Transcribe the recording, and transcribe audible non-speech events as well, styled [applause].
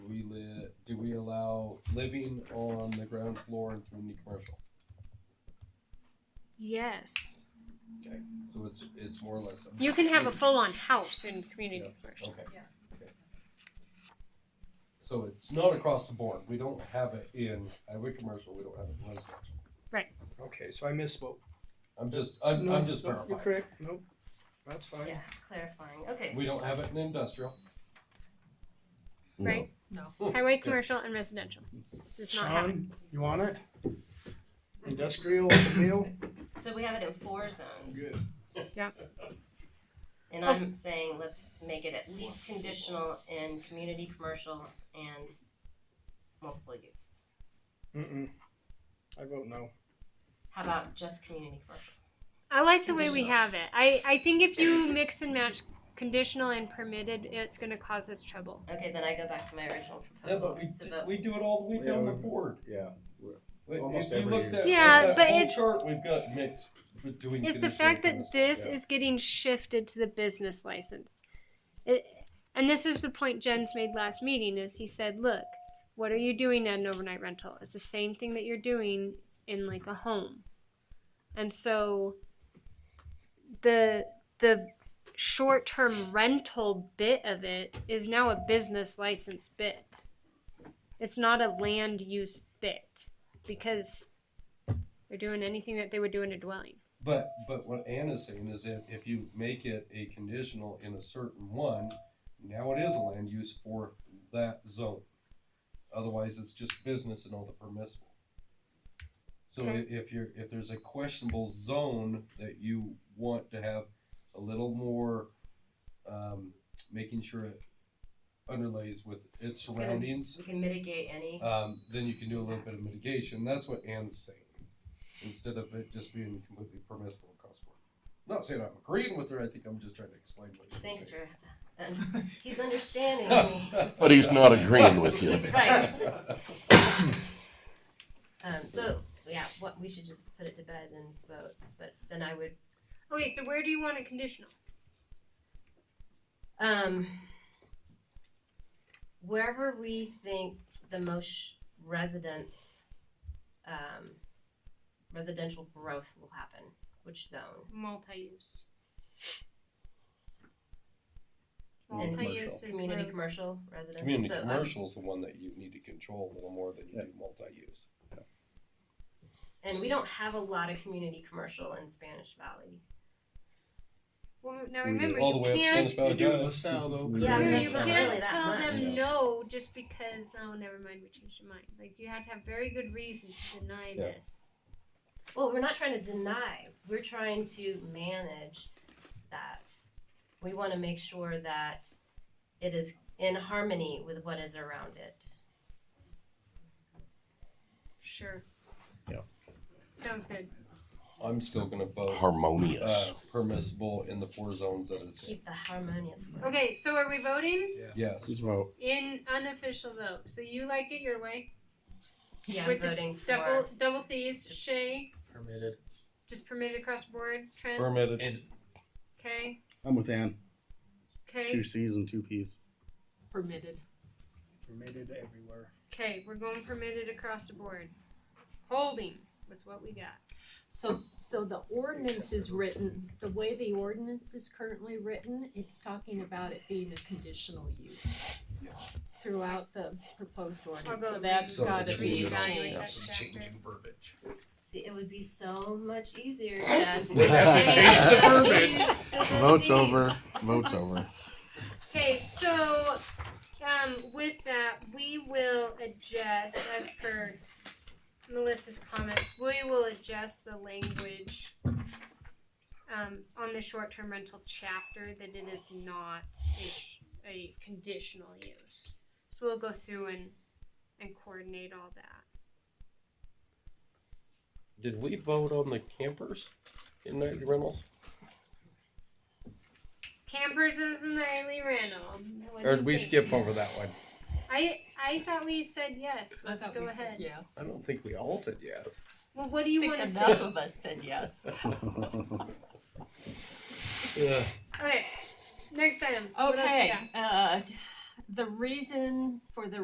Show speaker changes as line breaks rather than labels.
do we allow living on the ground floor in community commercial?
Yes.
So it's, it's more or less.
You can have a full on house in community
Yeah.
commercial.
Okay.
Yeah.
Okay. So it's not across the board, we don't have it in highway commercial, we don't have it in residential.
Okay, so I misspoke.
I'm just, I'm,
No,
I'm just
no, You're
verifying.
correct, nope, that's fine.
Yeah, clarifying. Okay.
We
so-
don't have it in industrial.
Right?
No.
Highway commercial and residential. Does not have it.
Sean, you want it? Industrial, meal?
So we have it in four zones.
Good.
Yeah.
[laughs] And I'm saying let's make it at least conditional in community, commercial, and multiple use.
Mm-mm. I vote no.
How about just community commercial?
I like the way we
Conditional.
have it. I, I think if you mix and match conditional and permitted, it's going to cause us trouble.
Okay, then I go back to my original proposal. It's about-
we do it all the
way down the
board.
Yeah.
If you
Almost
looked
every
at-
year.
at
Yeah,
that
but
whole
it's-
Chart we've got mixed between.
It's the
conditional
fact
and
that this
yeah.
is getting shifted to the business license. It, and this is the point Jens made last meeting is he said, look, what are you doing at an overnight rental? It's the same thing that you're doing in like a home. And so the the short-term rental bit of it is now a business license bit. It's not a land use bit because they're doing anything that they would do in a dwelling.
But, but what Anna's saying is that if you make it a conditional in a certain one, now it is a land use for that zone. Otherwise, it's just business and all the permissible. So i-
Okay.
if you're, if there's a questionable zone that you want to have a little more, um, making sure it underlays with its
gonna-
surroundings,
We can mitigate any.
um, then you can do a little bit of mitigation. That's what Anne's saying, instead of it just being completely permissible across the board. I'm Not saying I'm agreeing with her. I think I'm just trying to explain what she's
Thanks
saying. [laughs]
for, and he's understanding me.
But he's not agreeing with
[laughs]
you.
He's right. Um, so, yeah, what, we should just put it to bed and vote, but then I would,
Okay, so where do you want a conditional?
um, wherever we think the most residents, um, residential growth will happen, which zone?
Multi-use.
And
Multi-use is
Community,
where-
commercial, residential?
Community
So, um,
commercial is the one that you need to control a little more than you do multi-use.
And we don't have a lot of community commercial in Spanish Valley.
Well, now
We do
remember,
All the
you
way up to
can't,
Spanish Valley Drive.
though.
Yeah,
you,
Spanish
you
Valley. That's not
can't
really that
tell
much.
them
Yeah.
no just because, oh, never mind, we changed our mind. Like, you have to have very good reason to deny
Yeah.
this.
Well, we're not trying to deny. We're trying to manage that. We want to make sure that it is in harmony with what is around it.
Sure.
Yeah.
Sounds good.
I'm still gonna vote,
harmonious.
uh, permissible in the four zones that it's in.
Keep the harmonious. flow.
Okay, so are we voting?
Yes.
Just vote.
In unofficial vote. So you like it your way.
Yeah, I'm
With the
voting for.
Double double C's, Shay,
permitted.
just permitted across the board, Trent,
Permitted.
And-
okay,
I'm with Ann. Two
okay,
C's and two P's.
permitted.
Permitted everywhere.
okay, we're going permitted across the board. Holding with what we got.
So, so the ordinance is written, the way the ordinance is currently written, it's talking about it being a conditional use throughout the proposed ordinance, so
about
that's
So
gotta
that's
be
what we're doing.
changed.
That's the change in
verbiage.
See, it would be so much easier just.
We have to change the
verbiage.
Just to the
Vote's
Z's.
over. Vote's over.
Okay, so um, with that, we will adjust as per Melissa's comments. We will adjust the language um, on the short-term rental chapter that it is not a, sh- a conditional use. So we'll go through and and coordinate all that.
Did we vote on the campers in nightly rentals?
Campers is an Eileen Randall. What do
Or
you
did we
think?
skip over that one?
I I thought we said yes.
I
Let's
thought
go
we said
ahead.
Yes.
I don't think we all said yes.
Well, what do you want to say?
of us said yes.
Yeah.
Okay, next item. What else you
Okay,
got?
uh, the reason for the